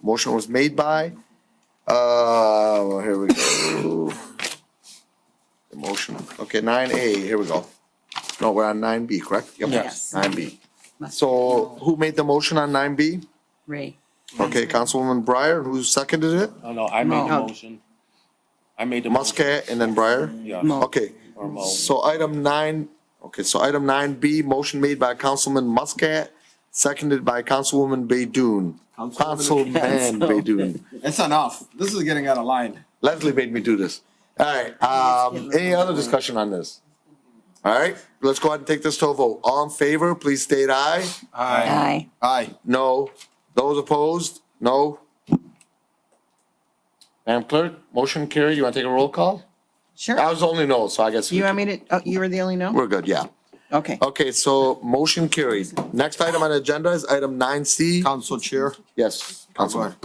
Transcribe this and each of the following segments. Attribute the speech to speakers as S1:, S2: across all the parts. S1: Motion was made by, uh, well, here we go. The motion, okay, nine A, here we go. No, we're on nine B, correct? Yep.
S2: Yes.
S1: Nine B. So who made the motion on nine B?
S2: Ray.
S1: Okay, Councilwoman Breyer, who seconded it?
S3: Oh, No, no, I made the
S2: No.
S3: motion. I made the. motion.
S1: Muscat and then Breyer?
S3: Yeah,
S2: Mo.
S1: Okay,
S3: or Mo.
S1: so item nine, okay, so item nine B, motion made by Councilman Muscat, seconded by Councilwoman Baydun.
S4: Councilwoman-
S1: Councilman Baydun.
S4: It's enough. This is getting out of line.
S1: Leslie made me do this. All right, um, any other discussion on this? All right, let's go ahead and take this to a vote. All in favor, please state aye.
S4: Aye.
S2: Aye.
S4: Aye.
S1: No. Those opposed? No. Madam Clerk, motion carried. You want to take a roll call? I
S2: Sure.
S1: was only no, so I guess we
S2: You want
S1: can-
S2: me to, oh, you were the only no?
S1: we're good, yeah.
S2: Okay.
S1: Okay, so motion carried. Next item on the agenda is item nine C.
S4: Council Chair.
S1: Yes, Councilman.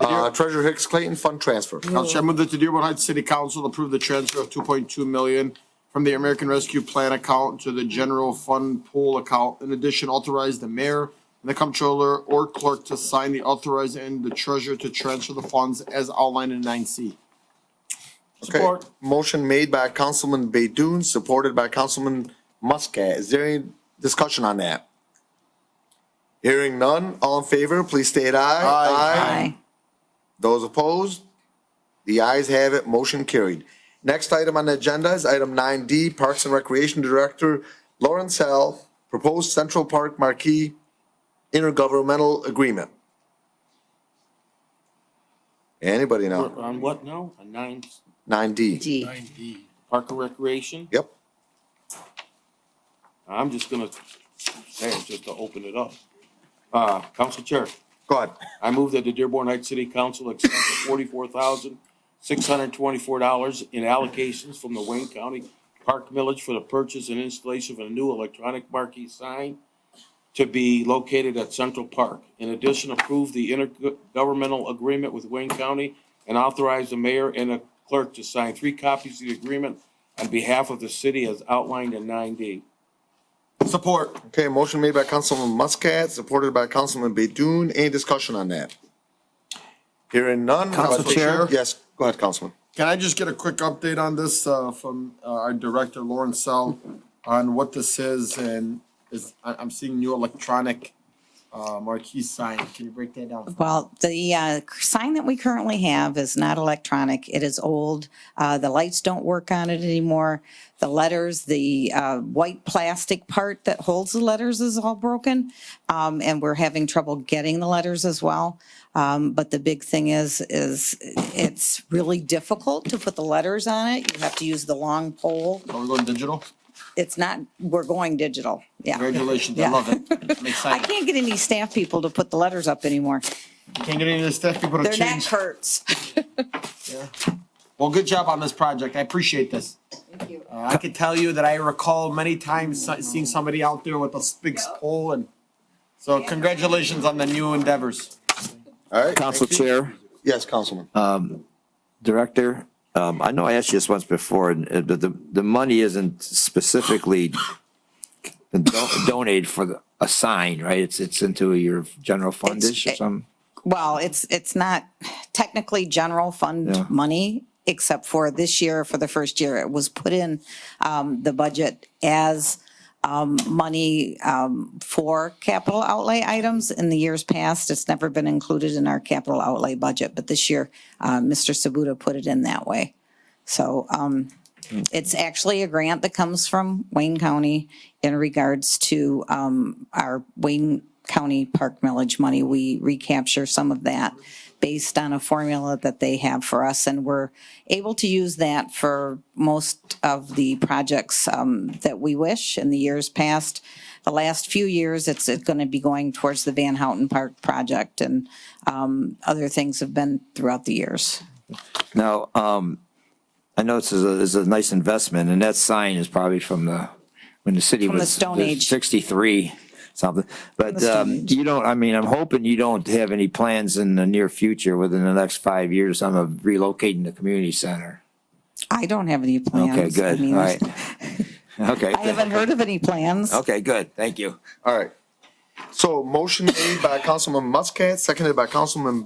S1: Uh, Treasurer Hicks Clayton, fund transfer.
S4: Council Chair, I move that the Dearborn Heights City Council approve the transfer of two point two million from the American Rescue Plan account to the general fund pool account. In addition, authorize the mayor and the comptroller or clerk to sign the authorize and the treasurer to transfer the funds as outlined in nine C.
S1: Okay, motion made by Councilman Baidoon, supported by Councilman Muscat. Is there any discussion on that? Hearing none, all in favor, please state aye.
S4: Aye.
S2: Aye.
S1: Those opposed? The ayes have it, motion carried. Next item on the agenda is item nine D, Parks and Recreation Director Lawrence Hell, proposed Central Park Marquee intergovernmental agreement. Anybody know?
S3: On what now? On nine,
S1: Nine D,
S2: D.
S3: Park and Recreation?
S1: yep.
S3: I'm just gonna, say it just to open it up. Uh, Council Chair,
S1: Go ahead.
S3: I move that the Dearborn Heights City Council accept the forty-four thousand, six hundred and twenty-four dollars in allocations from the Wayne County Park Village for the purchase and installation of a new electronic marquee sign to be located at Central Park. In addition, approve the intergovernmental agreement with Wayne County and authorize the mayor and the clerk to sign three copies of the agreement on behalf of the city as outlined in nine D.
S4: Support.
S1: Okay, motion made by Councilman Muscat, supported by Councilman Bedun. Any discussion on that? Hearing none.
S4: Council Chair?
S1: Yes, go ahead, Councilman.
S4: Can I just get a quick update on this uh, from uh, our director, Lauren Sell, on what this is and is, I- I'm seeing new electronic uh, marquee sign. Can you break that down?
S2: Well, the uh, sign that we currently have is not electronic. It is old. Uh, The lights don't work on it anymore. The letters, the uh, white plastic part that holds the letters is all broken. Um, And we're having trouble getting the letters as well. Um, But the big thing is, is it's really difficult to put the letters on it. You have to use the long pole.
S4: Are we going digital?
S2: It's not, we're going digital. Yeah.
S4: Congratulations, I
S2: Yeah.
S4: love it. I'm
S2: I
S4: excited.
S2: can't get any staff people to put the letters up anymore.
S4: Can't get any of this stuff, people to
S2: They're not
S4: change.
S2: Kurt's.
S4: Well, good job on this project. I appreciate this. Thank you. I could tell you that I recall many times si- seeing somebody out there with a big pole and, so congratulations on the new endeavors.
S1: All right.
S5: Council
S1: thank you.
S5: Chair,
S1: Yes, Councilman.
S5: Director, um, I know I asked you this once before, and uh, the, the, the money isn't specifically don- donated for the, a sign, right? It's, it's into your general fundish or something?
S2: Well, it's, it's not technically general
S5: Yeah.
S2: fund money, except for this year, for the first year, it was put in um, the budget as um, money um, for capital outlay items. In the years past, it's never been included in our capital outlay budget, but this year, uh, Mr. Sabuda put it in that way. So um, it's actually a grant that comes from Wayne County in regards to um, our Wayne County Park Millage money. We recapture some of that based on a formula that they have for us, and we're able to use that for most of the projects um, that we wish in the years past. The last few years, it's going to be going towards the Van Houten Park project, and um, other things have been throughout the years.
S5: Now, um, I know this is a, this is a nice investment, and that sign is probably from the, when the city
S2: the
S5: was.
S2: Stone
S5: the
S2: Age.
S5: Sixty-three, something, but,
S2: the Stone
S5: um, you don't, I mean, I'm hoping you don't have any plans in the near future, within the next five years, I'm relocating the community center.
S2: I don't have any plans.
S5: Okay,
S2: I
S5: good, all
S2: mean,
S5: right. Okay.
S2: I haven't heard of any plans.
S5: Okay, good, thank you.
S1: All right. So motion made by Councilman Muscat, seconded by Councilman